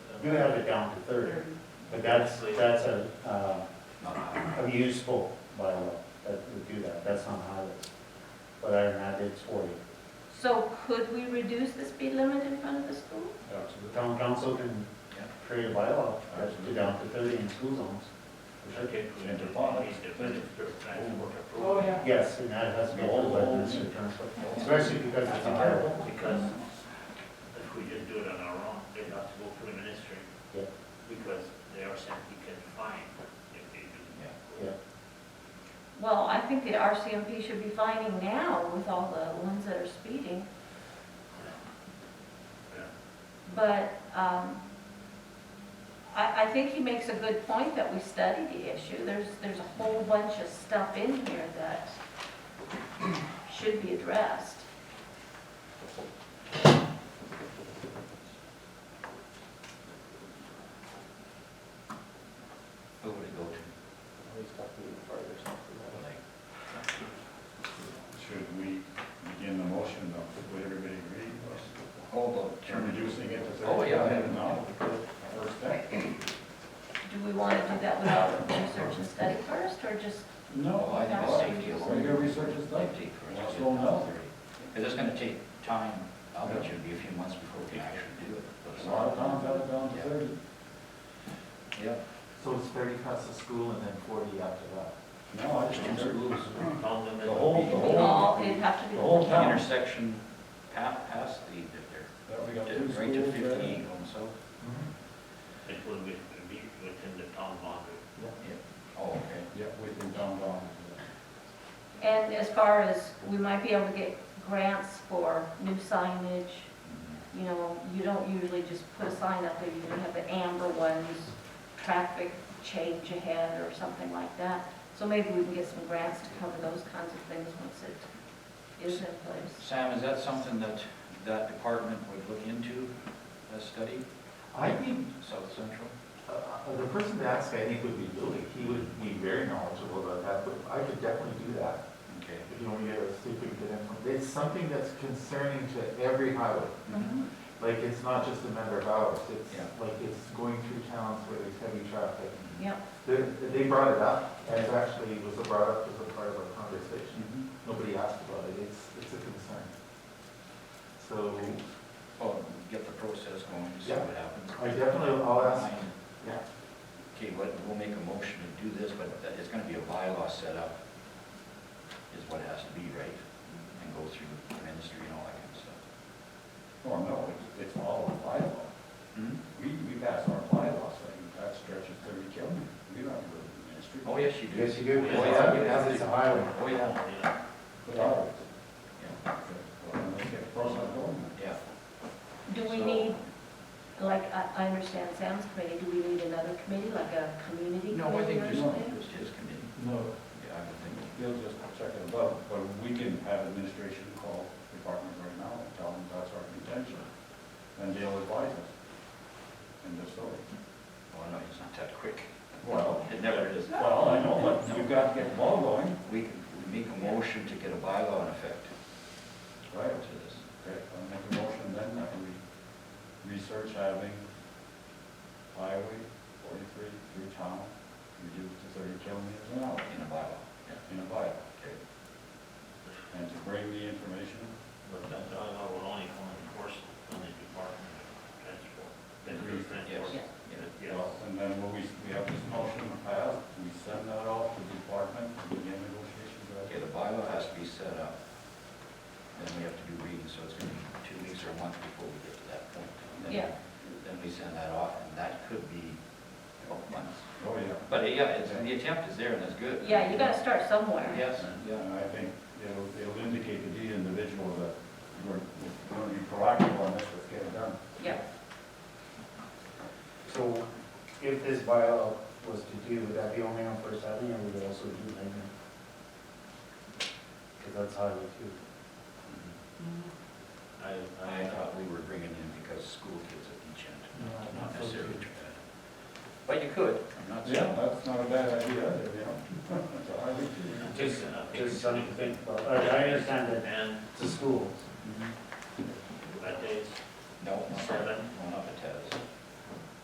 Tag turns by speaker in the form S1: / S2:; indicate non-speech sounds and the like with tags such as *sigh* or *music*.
S1: you have it down to thirty, but that's, that's a, uh,
S2: not highway.
S1: a useful bylaw that would do that, that's not highways. But other than that, it's forty.
S3: So could we reduce the speed limit in front of the school?
S1: The town council can
S4: Yeah.
S1: create a bylaw that's
S2: Absolutely.
S1: to down to thirty in school zones. for sure.
S4: Oh, yeah.
S1: Yes, and that has to be all by the district council, especially because it's a highway.
S5: Because if we just do it on our own, they'd have to go through the ministry.
S1: Yeah.
S5: Because they are simply can fine if they do.
S3: Well, I think the RCMP should be finding now with all the ones that are speeding,
S5: Yeah.
S3: but um, I, I think he makes a good point that we study the issue. There's, there's a whole bunch of stuff in here that should be addressed.
S2: Who would it go to? Like,
S6: Should we begin the motion of, would everybody agree,
S2: Hold
S6: or reducing it to thirty?
S2: Oh, yeah.
S6: No, first step?
S3: Do we want to do that without research and study first, or just,
S2: Well, Oh, I think safety
S6: So your
S2: alone.
S6: research is done?
S2: Safety
S6: Well,
S2: first.
S6: so no.
S2: Because it's gonna take time, I'll bet you it'll be a few months before we can actually do it.
S6: A lot of towns have it down to
S2: Yeah.
S6: thirty.
S2: Yeah.
S4: So it's thirty past the school and then forty after that.
S6: No, I just think they're
S5: Tell them that-
S6: The whole-
S3: it'd be all, it'd have to be
S6: The whole
S2: The
S6: town.
S2: intersection pa- past the, they're,
S6: That we got two schools.
S2: right to
S6: right?
S2: fifty-eight going south.
S5: It will be, it'll be within the town boundary.
S2: Oh, okay.
S6: Yeah, we've been down down.
S3: And as far as, we might be able to get grants for new signage, you know, you don't usually just put a sign up there, you usually have the amber ones, traffic change ahead or something like that. So maybe we can get some grants to cover those kinds of things once it is in place.
S2: Sam, is that something that that department would look into, a study,
S4: I think,
S2: South Central?
S4: uh, uh, the person to ask, I think, would be Billy. He would be very knowledgeable about that, but I could definitely do that.
S2: Okay.
S4: If you want me to get a secret to them. It's something that's concerning to every highway.
S2: Mm-hmm.
S4: Like, it's not just a matter of hours. It's
S2: Yeah.
S4: like, it's going through towns where there's heavy traffic.
S3: Yep,
S4: They, they brought it up, and it actually was brought up as a part of our conversation.
S2: Mhm.
S4: Nobody asked about it, it's, it's a concern. So
S2: Well, Oh, get the process going, see
S4: Yeah.
S2: what happens.
S4: I definitely, I'll ask,
S2: Fine.
S4: yeah,
S2: Okay, what, we'll make a motion to do this, but that- it's gonna be a bylaw set up, is what it has to be, right? And go through the ministry and all that kind of stuff.
S6: Well, Oh, no, it's- it's all a bylaw. We, we pass our bylaws, like, that stretches thirty kilometers, we don't have a ministry.
S2: Oh, yes, you do.
S1: Yes, you do,
S2: Oh, yeah, you
S1: because
S2: have
S1: it's a
S2: to.
S1: highway.
S2: Oh, yeah,
S5: Yeah.
S6: But ours,
S2: yeah,
S6: well, let's get the process going.
S2: yeah.
S3: do we
S2: So-
S3: need, like, I, I understand Sam's committee, do we need another committee, like a community
S2: No, I
S3: committee
S2: think
S3: or
S2: just,
S3: something?
S2: just his committee,
S6: No,
S2: yeah, I would think.
S6: They'll just check it above, but we can have administration call department right now and tell them that's our contention. And they'll advise us. And just so.
S2: Well, no, he's not that quick.
S6: Well,
S2: It never is.
S6: well, I know, but you've got to get the ball going.
S2: We, can- we make a motion to get a bylaw in effect
S6: Right.
S2: to this.
S6: Okay, I'll make a motion then that we research having highway forty-three through town reduced to thirty kilometers an hour
S2: in a bylaw.
S6: in a bike.
S2: Okay.
S6: And to bring the information,
S5: But that bylaw will only come in force when the Department of Transport.
S6: Agreed.
S5: Transport.
S3: Yes.
S5: Yes.
S6: Well, and then when we, we have this motion passed, we send that off to the department to begin negotiations.
S2: Okay, the bylaw has to be set up, then we have to do readings, so it's gonna be two weeks or a month before we get to that point. And then-
S3: Yeah.
S2: Then we send that off, and that could be a couple months.
S6: Oh, yeah.
S2: But uh, yeah, it's, the attempt is there, and that's good.
S3: Yeah, you gotta start somewhere.
S2: Yes, yeah,
S6: And I think it'll, it'll indicate to the individual that we're, we're going to be proactive on this, let's get it done.
S3: Yep.
S1: So if this bylaw was to do, would that be only on First Avenue or would it also do Lincoln? Because that's highway too.
S5: I,
S2: I thought we were bringing in because school kids at each end, not necessarily. But you could, I'm not
S6: Yeah,
S2: saying.
S6: that's not a bad idea, either, you know? *laughs* So I think
S5: I,
S6: we-
S5: just, I think.
S1: Just something to think about. I I understand that
S5: And
S1: it's a school,
S2: Mhm.
S5: that is
S2: No, not that.
S5: seven,